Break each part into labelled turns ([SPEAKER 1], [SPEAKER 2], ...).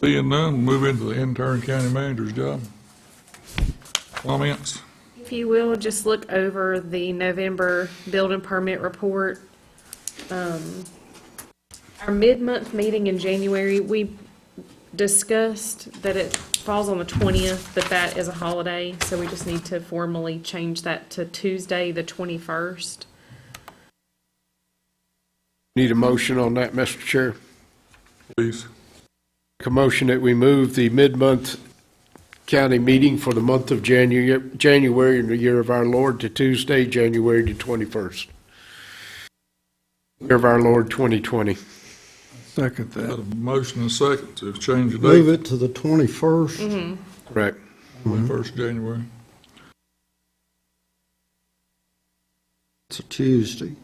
[SPEAKER 1] Seeing none, move into the intern county manager's job. Comments?
[SPEAKER 2] If you will, just look over the November building permit report. Um, Our mid-month meeting in January, we discussed that it falls on the 20th, but that is a holiday, so we just need to formally change that to Tuesday, the 21st.
[SPEAKER 3] Need a motion on that, Mr. Chair?
[SPEAKER 1] Please.
[SPEAKER 3] Make a motion that we move the mid-month county meeting for the month of Janu- January in the year of our Lord to Tuesday, January the 21st. Year of our Lord 2020.
[SPEAKER 4] Second
[SPEAKER 1] Got
[SPEAKER 4] that.
[SPEAKER 1] a motion and second to change the
[SPEAKER 4] Move
[SPEAKER 1] date,
[SPEAKER 4] it to the 21st.
[SPEAKER 3] Correct.
[SPEAKER 1] first January.
[SPEAKER 4] It's a Tuesday.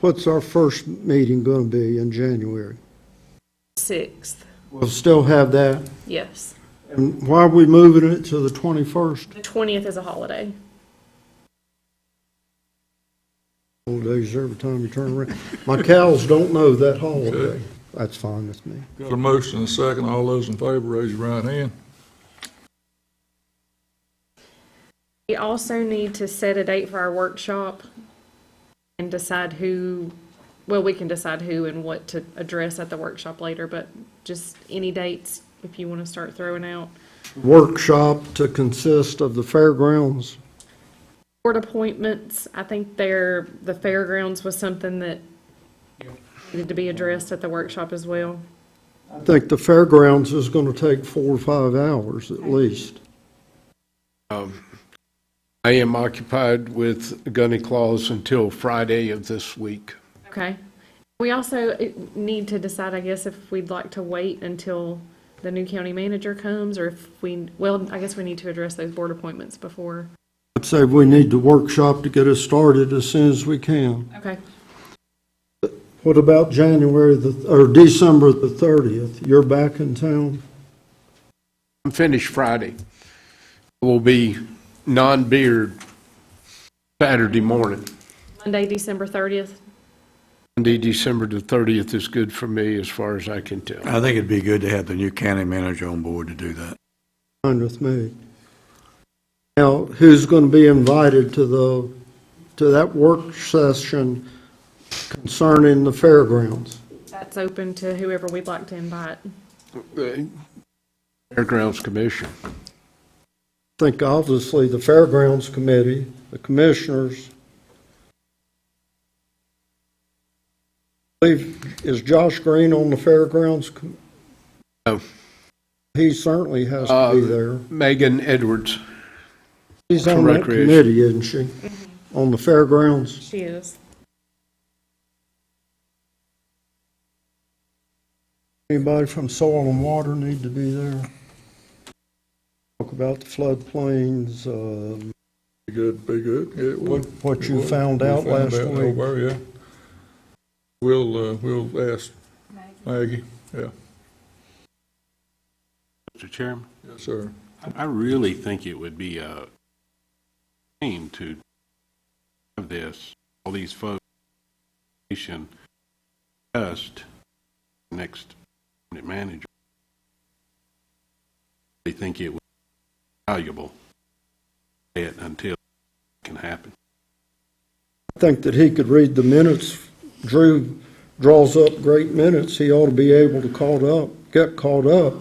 [SPEAKER 4] What's our first meeting going to be in January?
[SPEAKER 2] 6th,
[SPEAKER 4] We'll still have that.
[SPEAKER 2] yes.
[SPEAKER 4] And why are we moving it to the 21st?
[SPEAKER 2] The 20th is a holiday.
[SPEAKER 4] Holidays every time you turn around. My cows don't know that holiday. That's fine with me.
[SPEAKER 1] Got a motion and second, all those in favor, raise your right hand.
[SPEAKER 2] We also need to set a date for our workshop and decide who, well, we can decide who and what to address at the workshop later, but just any dates if you want to start throwing out.
[SPEAKER 4] Workshop to consist of the fairgrounds.
[SPEAKER 2] Board appointments, I think there, the fairgrounds was something that needed to be addressed at the workshop as well.
[SPEAKER 4] I think the fairgrounds is going to take four or five hours at least.
[SPEAKER 3] I am occupied with Gunny Claus until Friday of this week.
[SPEAKER 2] Okay. We also eh, need to decide, I guess, if we'd like to wait until the new county manager comes or if we, well, I guess we need to address those board appointments before.
[SPEAKER 4] I'd say we need the workshop to get us started as soon as we can.
[SPEAKER 2] Okay.
[SPEAKER 4] What about January, the- or December the 30th? You're back in town?
[SPEAKER 3] I'm finished Friday. Will be non-beard Saturday morning.
[SPEAKER 2] Monday, December thirtieth.
[SPEAKER 3] Monday, December the 30th is good for me as far as I can tell.
[SPEAKER 5] I think it'd be good to have the new county manager on board to do that.
[SPEAKER 4] Fine with me. Now, who's going to be invited to the, to that work session concerning the fairgrounds?
[SPEAKER 2] That's open to whoever we'd like to invite.
[SPEAKER 3] The Fairgrounds Commission.
[SPEAKER 4] I think obviously the fairgrounds committee, the commissioners. I believe- Is Josh Green on the fairgrounds? com-
[SPEAKER 3] No.
[SPEAKER 4] He certainly has to be
[SPEAKER 3] Uh,
[SPEAKER 4] there.
[SPEAKER 3] Megan Edwards.
[SPEAKER 4] She's on that
[SPEAKER 3] Recreation.
[SPEAKER 4] committee, isn't she? On the fairgrounds?
[SPEAKER 2] She is.
[SPEAKER 4] Anybody from Soil and Water need to be there? Talk about the floodplains, um,
[SPEAKER 1] Be good, be good. Yeah, it
[SPEAKER 4] what
[SPEAKER 1] would.
[SPEAKER 4] what
[SPEAKER 1] It
[SPEAKER 4] you
[SPEAKER 1] would.
[SPEAKER 4] found
[SPEAKER 1] We
[SPEAKER 4] out last
[SPEAKER 1] out, don't
[SPEAKER 4] week.
[SPEAKER 1] worry, yeah. We'll, uh, we'll ask Maggie, yeah,
[SPEAKER 6] Mr. Chairman,
[SPEAKER 1] yes, sir.
[SPEAKER 6] I- I really think it would be a shame to have this, all these folks, nation, just next unit manager. They think it would be valuable, it until it can happen.
[SPEAKER 4] I think that he could read the minutes. Drew draws up great minutes. He ought to be able to caught up, get caught up.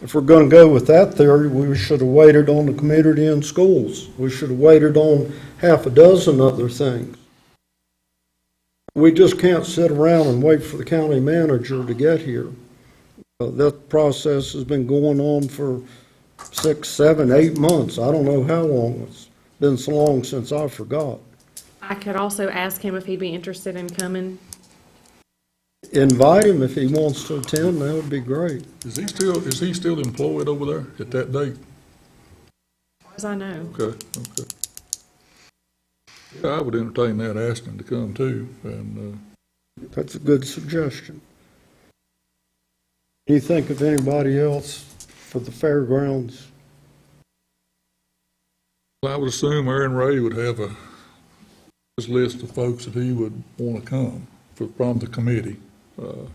[SPEAKER 4] If we're going to go with that theory, we should have waited on the community and schools. We should have waited on half a dozen other things. We just can't sit around and wait for the county manager to get here. Uh, That process has been going on for six, seven, eight months. I don't know how long. It's been so long since I forgot.
[SPEAKER 2] I could also ask him if he'd be interested in coming.
[SPEAKER 4] invite him if he wants to attend, that would be great.
[SPEAKER 1] Is he still, is he still employed over there at that date?
[SPEAKER 2] As I know,
[SPEAKER 1] Okay, okay. Yeah, I would entertain that, asking him to come too, and, uh,
[SPEAKER 4] That's a good suggestion. Do you think of anybody else for the fairgrounds?
[SPEAKER 1] uh, I would assume Aaron Ray would have a, his list of folks that he would want to come for, from the committee. Uh,